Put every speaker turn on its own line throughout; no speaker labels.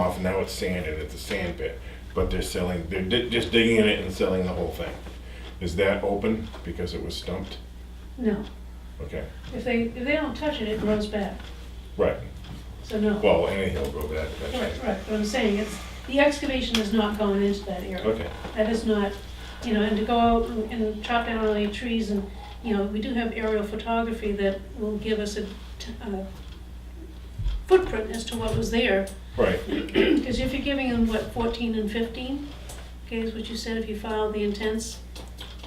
off, and now it's sanded, it's a sand pit, but they're selling, they're di- just digging in it and selling the whole thing. Is that open because it was stumped?
No,
Okay,
if they, if they don't touch it, it grows back,
right,
so no. Right,
well, anything will go back
right,
eventually.
but I'm saying it's, the excavation is not going into that area.
Okay,
That is not, you know, and to go out and- and chop down all your trees and, you know, we do have aerial photography that will give us a t- a footprint as to what was there.
right,
Because if you're giving them, what, 14 and 15, okay, is what you said, if you filed the intents?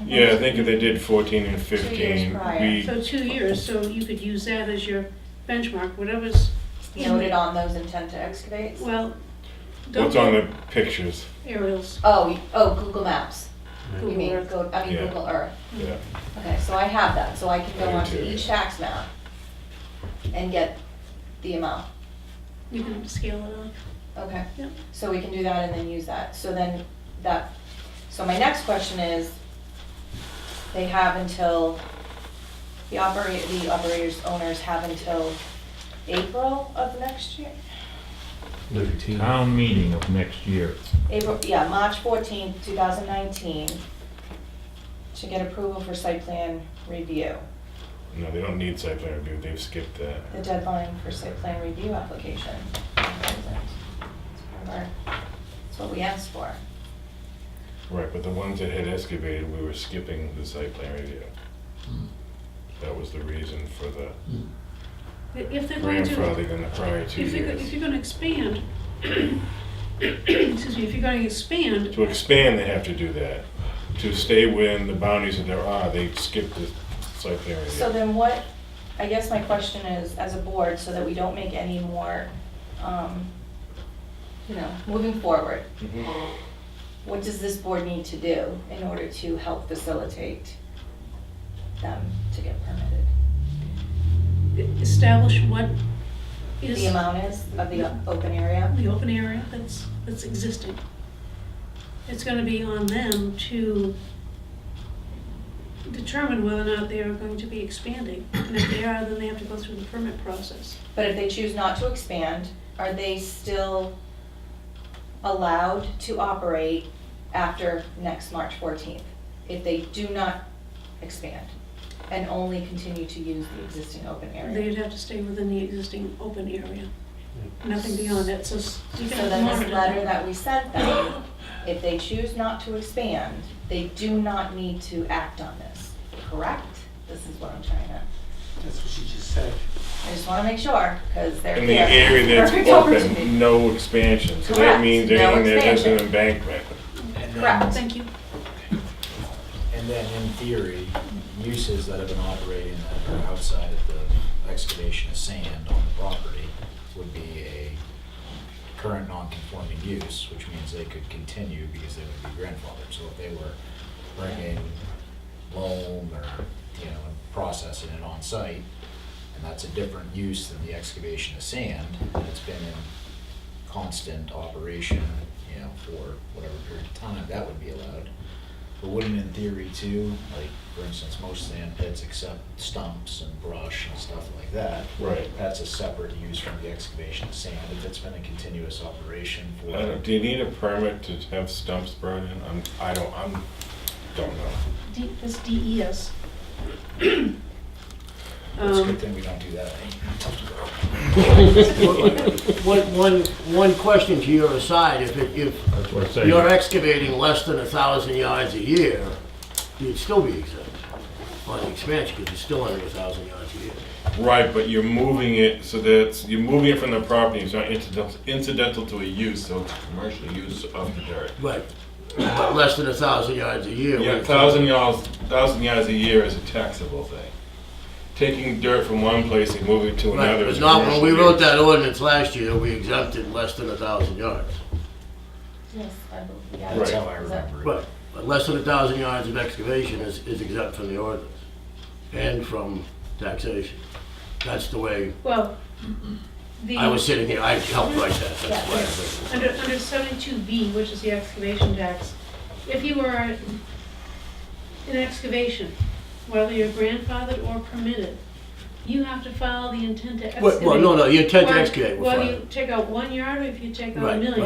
yeah, I think if they did fourteen and
years
fifteen,
prior.
we,
So two years, so you could use that as your benchmark, whatever's in
Noted
there.
on those intent to excavate?
Well, don't
what's on the pictures,
aerials,
Oh, you- oh, Google Maps. You
Google
mean,
Earth.
go, I mean
Yeah.
Google Earth.
Hmm.
yeah,
Okay, so I have that, so I can go
I do
onto
too,
each
yeah.
tax map and get the amount.
you can scale it up.
Okay.
Yep.
So we can do that and then use that. So then that, so my next question is, they have until, the operator, the operators, owners have until April of next year?
Town meeting of next year.
April, yeah, March fourteenth, two thousand nineteen, to get approval for site plan review.
no, they don't need site plan review, they've skipped that.
The deadline for site plan review application. Remember, That's what we asked for.
Right, but the ones that had excavated, we were skipping the site plan review. That was the reason for the
If they're going to,
grandfathering in the prior two
if you're, go- if
years.
you're gonna expand, excuse me, if you're gonna expand,
To expand, they have to do that. To stay within the boundaries that there are, they skip the site plan
So
review.
then what, I guess my question is, as a board, so that we don't make any more, um, you know, moving forward,
Mhm.
what does this board need to do in order to help facilitate them to get permitted?
establish what is
The amount is of the open area?
the open area that's, that's existing. It's gonna be on them to determine whether or not they are going to be expanding. And if they are, then they have to go through the permit process.
But if they choose not to expand, are they still allowed to operate after next March 14th? If they do not expand and only continue to use the existing open area?
They'd have to stay within the existing open area, nothing beyond it, so s- you
So
can
then
monitor
this letter
that.
that we sent them, if they choose not to expand, they do not need to act on this, correct? This is what I'm trying to,
That's what she just said.
I just want to make sure, because they're
In the
here.
area that's
Perfect opportunity.
open, no expansion. So that
Correct,
means
no
anything that has an
expansion.
embankment.
And then-
Correct.
Thank you.
And then in theory, uses that have been operating that are outside of the excavation of sand on the property would be a current non-conforming use, which means they could continue because they would be grandfathered. So if they were bringing loam or, you know, and processing it on site, and that's a different use than the excavation of sand, and it's been in constant operation, you know, for whatever period of time, that would be allowed. But wouldn't in theory too, like, for instance, most sand pits except stumps and brush and stuff like that,
Right.
that's a separate use from the excavation of sand, if it's been a continuous operation
I don't-
for.
Uh, Do you need a permit to have stumps brought in? I'm, I don't, I'm, don't know.
D, E this DES.
It's a
Um,
good thing we don't do that.
One, one, one question to your aside, if, it- if
That's what I say.
you're excavating less than a thousand yards a year, you'd still be exempt on the expansion, because it's still under a thousand yards a year.
Right, but you're moving it so that's you're moving it from the property. It's not incidental, incidental to a use, so it's a commercial use of the dirt.
Right, but less than a thousand yards a year.
Yeah,
we're-
thousand yards, thousand yards a year is a taxable thing. Taking dirt from one place and moving it to
Right,
another
but
is
not, when
commercial
we wrote
use.
that ordinance last year, we exempted less than a thousand yards.
Yes, I believe, yeah.
That's
Right.
how I remember it.
But, but less than a thousand yards of excavation is, is exempt from the ordinance and from taxation. That's the way
Well, the.
I was sitting here, I helped write that, that's why. I was-
Under, under seventy-two B, which is the excavation tax, if you are in excavation, whether you're grandfathered or permitted, you have to file the intent to
Well,
excavate.
well, no, no, you intend to
Well,
excavate. we'll
Well,
fine.
you take out one yard, or if you take out a
Right,
million.